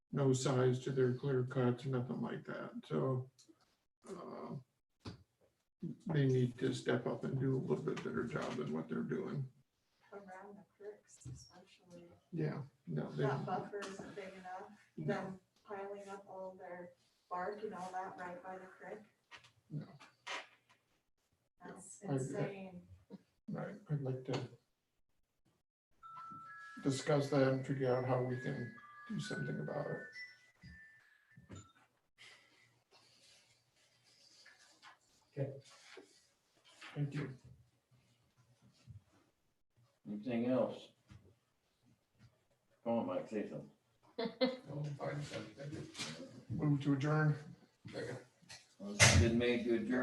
no size to their clear cuts, nothing like that, so. uh, They need to step up and do a little bit better job than what they're doing. around the creeks especially. Yeah. No, they, That buffer isn't big enough, them piling up all their bark and all that right by the creek. No. That's I agree. insane. right, I'd like to discuss that and figure out how we can do something about it. Okay. Thank you. Anything else? Go on, Mike, say something. I'll find something. Move to adjourn. Second. Well, it's Been made to adjourn.